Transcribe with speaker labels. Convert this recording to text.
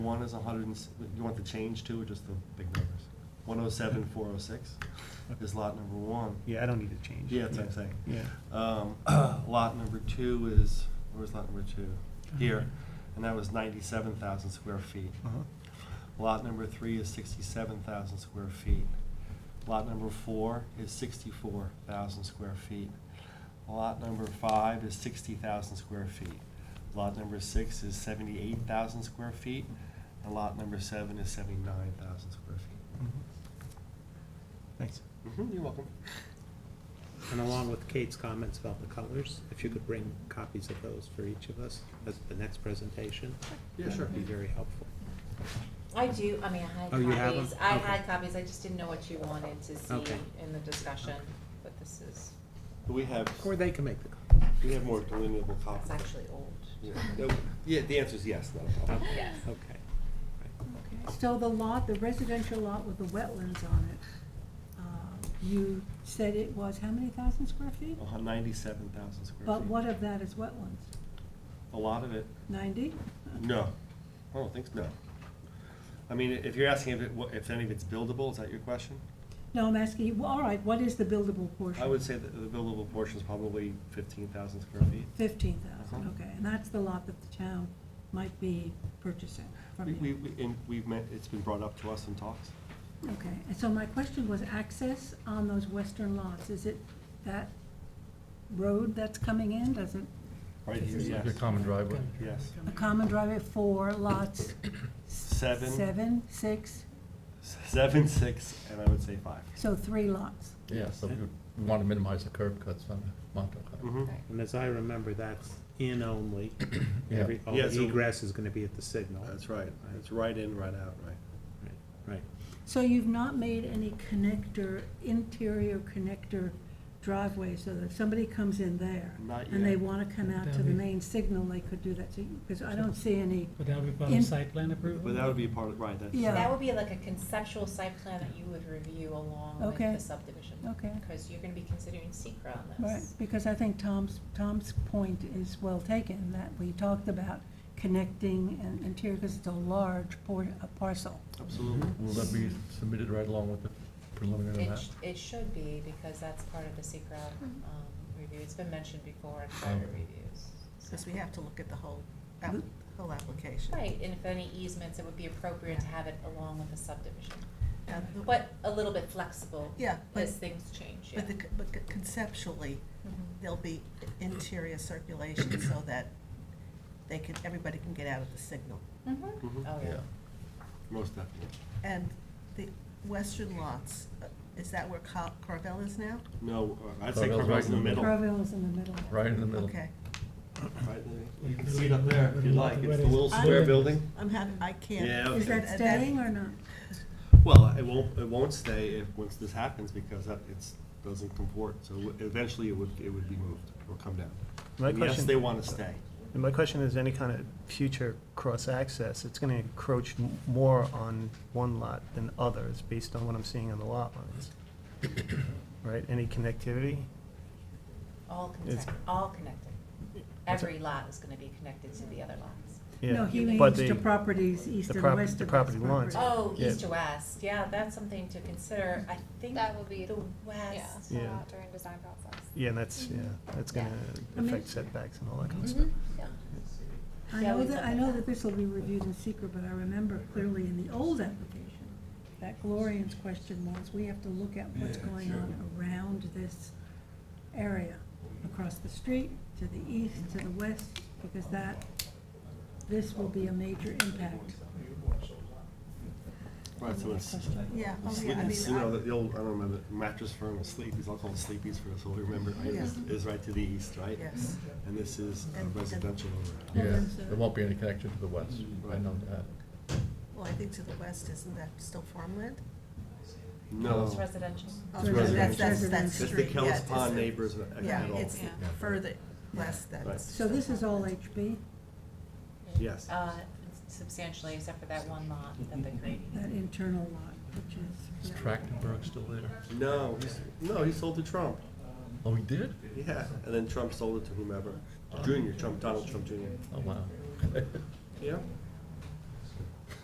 Speaker 1: One is a hundred and, s- you want the change too, or just the big numbers? One oh seven, four oh six is lot number one.
Speaker 2: Yeah, I don't need to change.
Speaker 1: Yeah, that's what I'm saying.
Speaker 2: Yeah.
Speaker 1: Um, lot number two is, where's lot number two? Here, and that was ninety-seven thousand square feet.
Speaker 2: Uh-huh.
Speaker 1: Lot number three is sixty-seven thousand square feet. Lot number four is sixty-four thousand square feet. Lot number five is sixty thousand square feet. Lot number six is seventy-eight thousand square feet, and lot number seven is seventy-nine thousand square feet.
Speaker 2: Mhm. Thanks.
Speaker 1: Mhm, You're welcome.
Speaker 3: And along with Kate's comments about the colors, if you could bring copies of those for each of us as the next presentation.
Speaker 1: Yeah, sure.
Speaker 3: That'd be very helpful.
Speaker 4: I do, I mean, I had
Speaker 3: Oh, you have
Speaker 4: copies,
Speaker 3: them?
Speaker 4: I
Speaker 3: Okay.
Speaker 4: had copies, I just didn't know what you wanted to see
Speaker 3: Okay.
Speaker 4: in the discussion,
Speaker 3: Okay.
Speaker 4: but this is,
Speaker 1: We have,
Speaker 3: Or they can make the copies.
Speaker 1: we have more delineable
Speaker 4: it's
Speaker 1: copies.
Speaker 4: actually old.
Speaker 1: Yeah, no, yeah, the answer is yes, not a problem.
Speaker 3: Okay,
Speaker 4: Yes.
Speaker 3: Okay.
Speaker 5: So the lot, the residential lot with the wetlands on it, um, you said it was how many thousand square feet?
Speaker 1: Ninety-seven thousand Oh, square feet.
Speaker 5: But what of that is wetlands?
Speaker 1: A lot of it
Speaker 5: Ninety?
Speaker 1: No, I don't think, so. no. I mean, if you're asking if it, what- if any of it's buildable, is that your question?
Speaker 5: No, I'm asking you, well, all right, what is the buildable portion?
Speaker 1: I would say that the buildable portion is probably fifteen thousand square feet.
Speaker 5: Fifteen thousand,
Speaker 1: Uh-huh.
Speaker 5: okay, and that's the lot that the town might be purchasing from
Speaker 1: We,
Speaker 5: you?
Speaker 1: we, we- and we've met, it's been brought up to us in talks.
Speaker 5: Okay, and so my question was access on those western lots, is it that road that's coming in, does it,
Speaker 1: Right here, yes,
Speaker 6: Your common driveway.
Speaker 1: yes.
Speaker 5: a common driveway for lots?
Speaker 1: Seven.
Speaker 5: Seven, six,
Speaker 1: S- Seven, six, and I would say five.
Speaker 5: so three lots.
Speaker 6: Yeah, so we would- we want to minimize the curb cuts on the Montauk Highway.
Speaker 1: Mhm.
Speaker 4: Right.
Speaker 3: And as I remember, that's in only.
Speaker 6: Yeah.
Speaker 3: Every, all
Speaker 1: Yeah, so-
Speaker 3: egress is gonna be at the signal.
Speaker 1: That's right, it's right in, right out, right?
Speaker 3: Right, Right.
Speaker 5: So you've not made any connector, interior connector driveway, so that if somebody comes in there
Speaker 1: Not
Speaker 5: and they
Speaker 1: yet.
Speaker 5: wanna come out to the main signal, they could do that, so, because I don't see any,
Speaker 7: Would that be part
Speaker 5: In-
Speaker 7: of site plan approval?
Speaker 1: But that would be part of, right, that's.
Speaker 5: Yeah.
Speaker 4: That would be like a conceptual site plan that you would review along with
Speaker 5: Okay.
Speaker 4: the subdivision.
Speaker 5: Okay.
Speaker 4: Because you're gonna be considering secra on
Speaker 5: right,
Speaker 4: this.
Speaker 5: because I think Tom's, Tom's point is well taken, that we talked about connecting and interior, because it's a large por- a parcel.
Speaker 1: Absolutely.
Speaker 6: Will that be submitted right along with the preliminary
Speaker 3: Uh-huh.
Speaker 4: It,
Speaker 6: map?
Speaker 4: sh- it should be, because that's part of the secra, um, review, it's been mentioned before in prior
Speaker 6: Oh.
Speaker 4: reviews. so-
Speaker 8: Because we have to look at the whole, app-
Speaker 1: Hmm?
Speaker 5: Mm.
Speaker 8: whole application.
Speaker 4: Right, and if any easements, it would be appropriate to have it along with the subdivision.
Speaker 8: Yeah, the-
Speaker 4: But a little bit flexible.
Speaker 8: Yeah, but-
Speaker 4: As things change, yeah.
Speaker 8: But the, but conceptually,
Speaker 4: Mhm.
Speaker 8: there'll be interior circulation so that they can, everybody can get out of the signal.
Speaker 4: Mhm.
Speaker 1: Mhm.
Speaker 4: Oh, yeah.
Speaker 6: Yeah.
Speaker 1: Most definitely.
Speaker 8: And the western lots, uh, is that where Car- Carvel is now?
Speaker 1: No, uh, I'd say
Speaker 6: Carvel's right
Speaker 1: Carvel's in the middle, right,
Speaker 5: Carville is in the middle.
Speaker 6: Right in the middle.
Speaker 8: Okay,
Speaker 1: Lily? You can see it up there if you like, it's the little
Speaker 5: I-
Speaker 1: square building.
Speaker 8: I'm having, I can't.
Speaker 1: Yeah,
Speaker 5: Is that staying or not?
Speaker 1: Well, it won't, it won't stay if, once this happens, because that, it's, doesn't comport, so eventually it would, it would be moved or come down.
Speaker 2: My
Speaker 1: And Yes,
Speaker 2: question-
Speaker 1: they wanna stay.
Speaker 2: And my question is, any kind of future cross-access, it's gonna encroach m- more on one lot than others, based on what I'm seeing on the lot lines. Right, any connectivity?
Speaker 4: All
Speaker 2: It's-
Speaker 4: connected, all connected.
Speaker 2: What's
Speaker 4: Every lot is gonna be connected to the other lots.
Speaker 2: Yeah,
Speaker 5: No, he
Speaker 2: but
Speaker 5: means to
Speaker 2: the-
Speaker 5: properties east
Speaker 2: the
Speaker 5: and
Speaker 2: prop-
Speaker 5: west
Speaker 2: the
Speaker 5: of his
Speaker 2: property lines.
Speaker 4: Oh,
Speaker 2: Yeah.
Speaker 4: east to west, yeah, that's something to consider. I think
Speaker 9: That will be,
Speaker 4: the
Speaker 9: yeah,
Speaker 4: west.
Speaker 2: Yeah.
Speaker 9: thought out during design process.
Speaker 2: Yeah, and that's, yeah, that's
Speaker 9: Yeah. Mm-hmm.
Speaker 2: gonna
Speaker 5: I mean-
Speaker 2: affect setbacks and all that kind of stuff.
Speaker 4: Mhm, yeah.
Speaker 5: I
Speaker 4: Yeah,
Speaker 5: know
Speaker 4: we
Speaker 5: that,
Speaker 4: looked
Speaker 5: I
Speaker 4: at
Speaker 5: know
Speaker 4: that.
Speaker 5: that this will be reviewed in secret, but I remember clearly in the old application, that Gloria's question was, we have to look at what's going on around this area, across the street, to the east, to the west, because that, this will be a major impact.
Speaker 1: Right, so it's.
Speaker 8: Yeah, oh,
Speaker 1: Sleep-
Speaker 8: yeah, I
Speaker 1: it's, You know,
Speaker 8: mean,
Speaker 1: the old, I don't remember, mattress firm, or sleepies, I'll call it sleepies for us all to remember, right, is,
Speaker 8: Yeah.
Speaker 1: is right to the east,
Speaker 8: I,
Speaker 1: right?
Speaker 8: yes.
Speaker 1: And this is a
Speaker 8: And- and-
Speaker 1: residential overlap.
Speaker 6: Yeah,
Speaker 5: Well, then,
Speaker 6: there won't be any connection to the west, I know that.
Speaker 8: Well, I think to the west, isn't that still farmland?
Speaker 1: No,
Speaker 4: It's residential.
Speaker 8: Oh, That's, that's, that's
Speaker 1: that's the
Speaker 8: street, yeah,
Speaker 1: Kellis
Speaker 8: it's-
Speaker 1: Pond neighbors at at
Speaker 8: Yeah,
Speaker 1: all,
Speaker 8: it's
Speaker 4: Yeah.
Speaker 8: further west that's.
Speaker 5: So this is all HB,
Speaker 1: yes.
Speaker 4: Uh, substantially, except for that one lot that they
Speaker 5: that
Speaker 4: created.
Speaker 5: internal lot, which is.
Speaker 6: Is Trachtenberg still there?
Speaker 1: No, he's, no, he sold to Trump,
Speaker 6: Oh, he did?
Speaker 1: yeah, and then Trump sold it to whomever, Junior, Trump, Donald Trump Junior,
Speaker 6: Oh, wow.
Speaker 1: yeah.